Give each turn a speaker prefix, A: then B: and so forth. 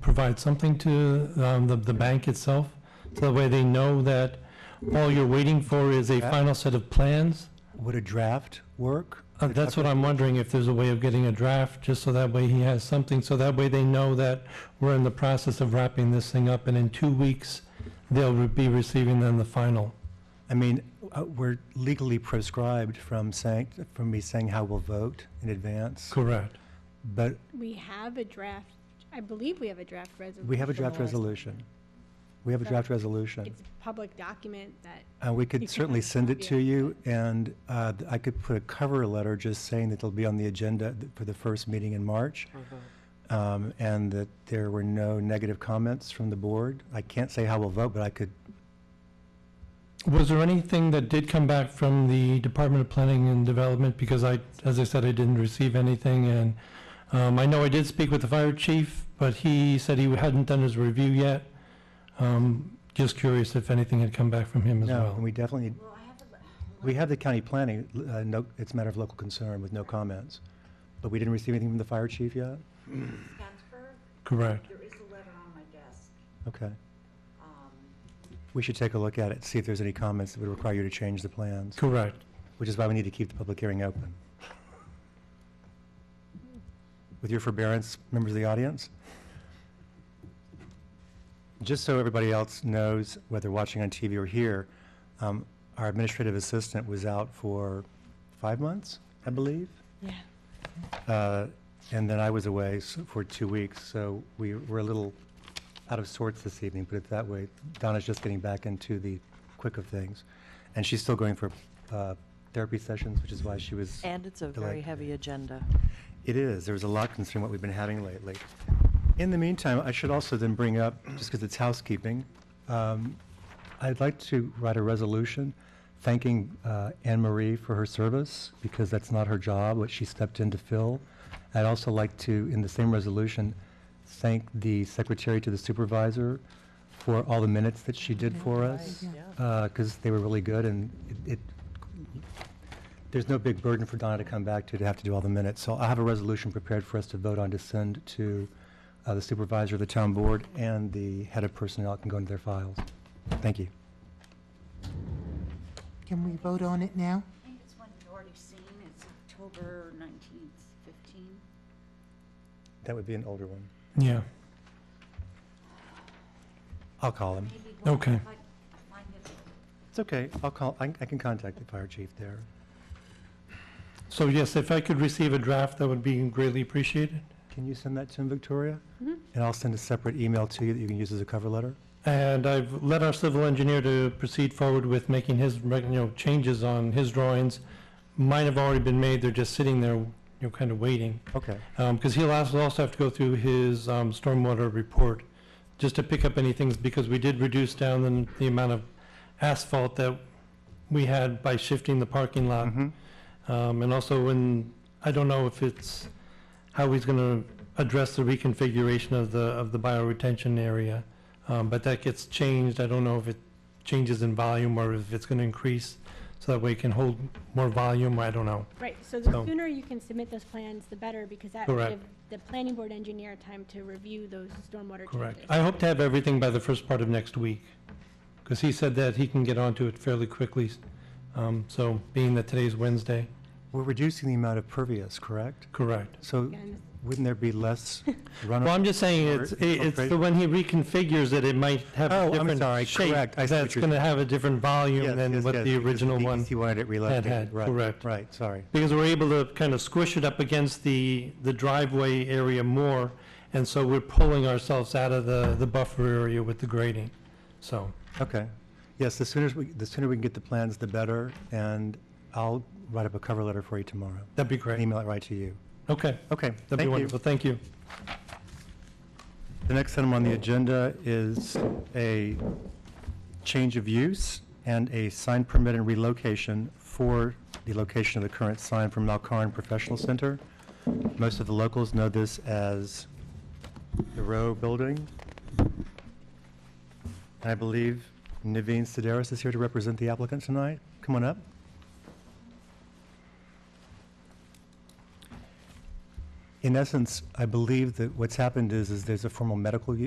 A: provide something to um, the, the bank itself? So that way they know that all you're waiting for is a
B: Yeah.
A: final set of plans?
B: Would a draft work?
A: Uh, That's what I'm wondering, if there's a way of getting a draft, just so that way he has something, so that way they know that we're in the process of wrapping this thing up, and in two weeks, they'll re- be receiving then the final.
B: I mean, uh, we're legally proscribed from saying, from me saying how we'll vote in advance.
A: Correct.
B: But
C: We have a draft, I believe we have a draft resolution.
B: we have a draft resolution. We have a draft resolution.
C: It's a public document that,
B: And we
C: You
B: could
C: can
B: certainly
C: have a
B: send it
C: copy
B: to
C: of
B: you, and uh, th- I could put a cover letter just saying that it'll be on the agenda th- for the first meeting in March,
C: Uh-huh.
B: um, and that there were no negative comments from the board. I can't say how we'll vote, but I could,
A: Was there anything that did come back from the Department of Planning and Development? Because I, as I said, I didn't receive anything, and um, I know I did speak with the fire chief, but he said he hadn't done his review yet. Um, Just curious if anything had come back from him as
B: no, and
A: well.
B: we definitely, we have the county planning, uh, no, it's a matter of local concern with no comments. But we didn't receive anything from the fire chief yet?
D: Scansburg,
A: Correct.
D: there is a letter on my desk.
B: Okay.
D: Um,
B: We should take a look at it, see if there's any comments that would require you to change the plans,
A: Correct.
B: which is why we need to keep the public hearing open. With your forbearance, members of the audience. Just so everybody else knows, whether watching on TV or here, um, our administrative assistant was out for five months, I believe.
C: yeah,
B: Uh, And then I was away s- for two weeks, so we were a little out of sorts this evening, put it that way. Donna's just getting back into the quick of things. And she's still going for uh, therapy sessions, which is why she was,
E: And it's a
B: Delightful.
E: very heavy agenda.
B: it is, there was a lot concerning what we've been having lately. In the meantime, I should also then bring up, just because it's housekeeping, um, I'd like to write a resolution thanking uh, Anne Marie for her service, because that's not her job, what she stepped in to fill. I'd also like to, in the same resolution, thank the secretary to the supervisor for all the minutes that she did for us,
E: Right, yeah.
B: because they were really good, and it- it, there's no big burden for Donna to come back to, to have to do all the minutes. So I have a resolution prepared for us to vote on to send to uh, the supervisor of the town board and the head of personnel can go into their files. Thank you.
F: Can we vote on it now?
D: I think it's one you've already seen, it's October 19th, 15.
B: That would be an older one.
A: Yeah.
B: I'll call him.
D: Maybe one
A: Okay.
D: if I I find it.
B: It's okay. I'll call, I I can contact the fire chief there.
A: So yes, if I could receive a draft, that would be greatly appreciated.
B: Can you send that to him, Victoria? And I'll send a separate email to you that you can use as a cover letter?
A: And I've let our civil engineer to proceed forward with making his, you know, changes on his drawings. Mine have already been made, they're just sitting there, you know, kind of waiting.
B: Okay.
A: Because Um, he'll also also have to go through his um, stormwater report, just to pick up any things, because we did reduce down the, the amount of asphalt that we had by shifting the parking lot.
B: Mhm.
A: Um, And also when, I don't know if it's, how he's going to address the reconfiguration of the, of the bioretention area, Um, but that gets changed. I don't know if it changes in volume or if it's going to increase, so that way it can hold more volume, I don't know.
C: right, so the
A: So-
C: sooner you can submit those plans, the better, because that
A: Correct.
C: would give the planning board engineer time to review those stormwater
A: Correct.
C: changes.
A: I hope to have everything by the first part of next week, because he said that he can get onto it fairly quickly, Um, so being that today's Wednesday.
B: We're reducing the amount of pervious, correct?
A: Correct.
B: So
C: Again,
B: wouldn't there be less
A: Well,
B: runoff?
A: I'm just saying, it's,
B: Or
A: it- it's the,
B: infiltrate.
A: when he reconfigures it, it might have
B: Oh,
A: a
B: I'm sorry,
A: different shape.
B: correct. I see what
A: That's
B: you're-
A: going to have a different
B: Yes,
A: volume than
B: yes,
A: what
B: yes,
A: the
B: because
A: original one,
B: DEC wanted it relocated.
A: had,
B: Right,
A: correct.
B: Right, sorry.
A: because we're able to kind of squish it up against the, the driveway area more, and so we're pulling ourselves out of the, the buffer area with the grading, so.
B: Okay. Yes, the sooner, we- the sooner we can get the plans, the better, and I'll write up a cover letter for you tomorrow.
A: That'd be
B: and
A: great.
B: Email it right to you.
A: Okay,
B: Okay,
A: that'd be
B: thank you.
A: wonderful, thank you.
B: The next item on the agenda is a change of use and a sign permit and relocation for the location of the current sign from Malkarn Professional Center. Most of the locals know this as the Row Building. And I believe Naveen Sidaris is here to represent the applicant tonight. Come on up. In essence, I believe that what's happened is, is there's a formal medical u-